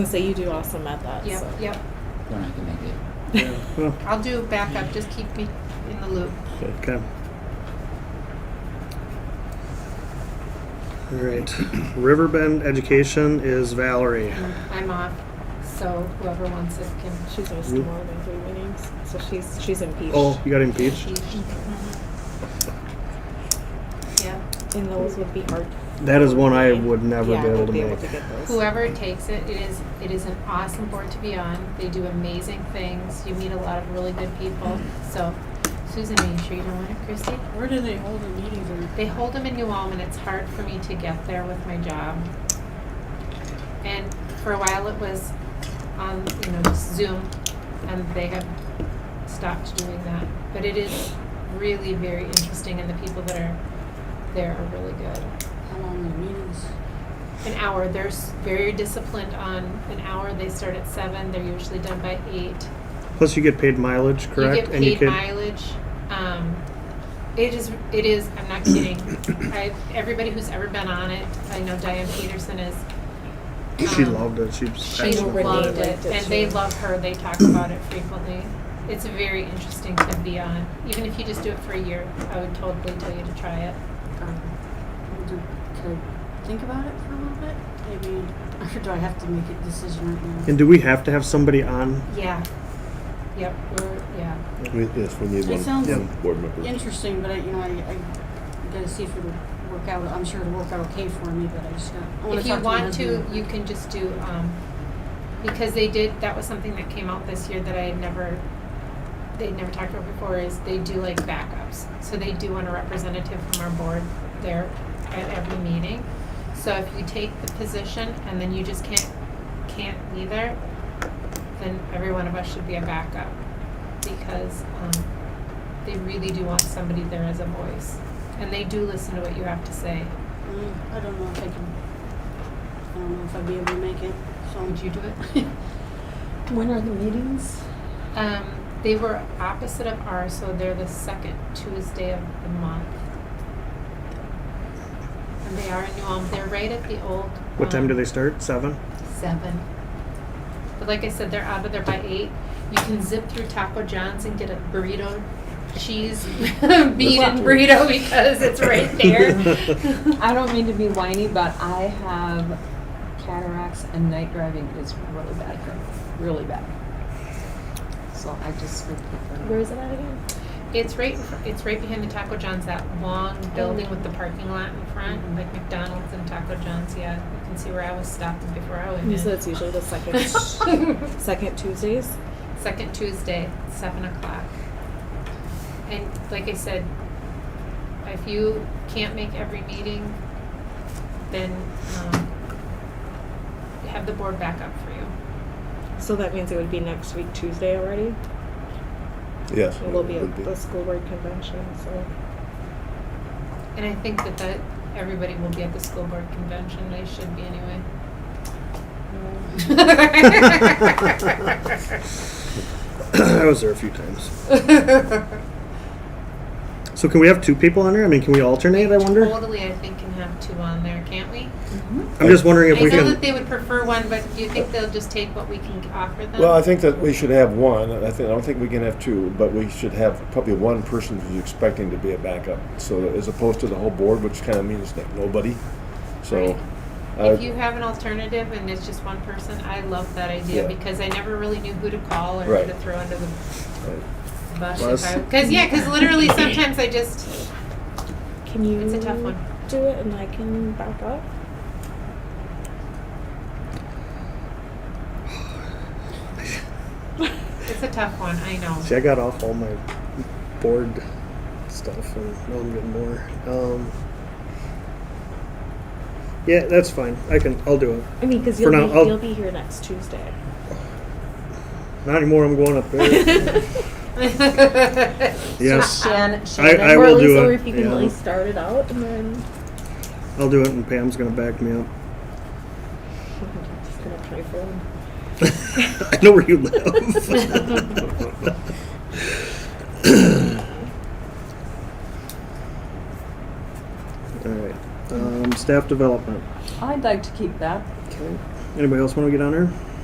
So you do awesome at that. Yep, so. yep. When I can make it. Well, I'll do backup. Just keep me in the loop. Okay. All right. Riverbend Education is Valerie. I'm off, so whoever wants it can. She's missed Mm. more than three meetings, so she's she's impeached. Oh, you got impeached? Yeah. And those would be hard. That is one I would never yeah, be able would to be make. able to get those. Whoever takes it, it is it is an awesome board to be on. They do amazing things. You meet a lot of really good people. So, Susan, are you sure you don't want it, Christy? Where do they hold the meetings? Or They hold them in New Ulm, and it's hard for me to get there with my job. And for a while, it was on you know just Zoom, and they have stopped doing that. But it is really very interesting, and the people that are there are really good. how long the meetings? An hour. They're s- very disciplined on an hour. They start at seven. They're usually done by eight. Plus, you get paid mileage, correct? You get paid mileage. Um, it is. It is. I'm not kidding. I, everybody who's ever been on it, I know Diane Peterson is. She um, loved it. She was She passionate about loved it. it, Liked it and they too. love her. They talk about it frequently. It's very interesting to be on. Even if you just do it for a year, I would totally tell you to try it. Um, do, can I think about it for a little bit? Maybe, or do I have to make a decision right now? And do we have to have somebody on? Yeah. Yep. We're, yeah. We- Yes, we need It one, sounds- one board member. Interesting, but I, you know, I, I gotta see if it'll work out. I'm sure it'll work out okay for me, but I just got. I wanna If talk you my want to, husband. you can just do, um, because they did, that was something that came out this year that I had never, they'd never talked about before, is they do like backups. So they do want a representative from our board there at every meeting. So if you take the position and then you just can't, can't be there, then every one of us should be a backup. Because, um, they really do want somebody there as a voice. And they do listen to what you have to say. Mm, I don't know if I can. I don't know if I'd be able to make it. So Would you do it? When are the meetings? Um, they were opposite of ours, so they're the second Tuesday of the month. And they are in New Ulm. They're right at the old. What time um, do they start? Seven? Seven. But like I said, they're out of there by eight. You can zip through Taco John's and get a burrito, cheese, bean and burrito because it's right there. I don't mean to be whiny, but I have cataracts and night driving is really bad for me, really bad. So I just would prefer. Where is it at again? It's right, in fr- it's right behind the Taco John's, that long building with the parking lot in Mm-hmm. front, like McDonald's and Taco John's, yeah. You can see where I was stopped before I went in. You said it's usually the second second Tuesdays. Second Tuesday, seven o'clock. And like I said, if you can't make every meeting, then, um, have the board back up for you. So that means it would be next week Tuesday already. Yes. It will be would at the school board convention. So And I think that that, everybody will be at the school board convention, they should be anyway. I was there a few times. So can we have two people on there? I mean, can we alternate? I wonder. Totally, I think can have two on there, can't we? I'm just wondering if I we know that they can. would prefer one, but do you think they'll just take what we can offer them? Well, I think that we should have one, and I think, I don't think we can have two, but we should have probably one person who's expecting to be a backup. So as opposed to the whole board, which kind of means like nobody, so. Right. uh, If you have an alternative and it's just one person, I love that idea Yeah. because I never really knew who to call or Right. who to throw under the right. bus. Well, that's- Because, yeah, because literally sometimes I just, can you? It's a tough one. Do it, and I can back up. it's a tough one, I know. See, I got off all my board stuff, and now I'm getting more. Um, yeah, that's fine. I can. I'll do it. I mean, because For you'll now, be, I'll- you'll be here next Tuesday. Not anymore. I'm going up there. yes, Shannon, I, Shannon, I or at will least, do or it. if you can at Yeah, least start it out, and then I'll do it, and Pam's gonna back me up. I'm just gonna try for them. I know where you live. All right. Um, staff development. I'd like to keep that. Anybody else want to get on there?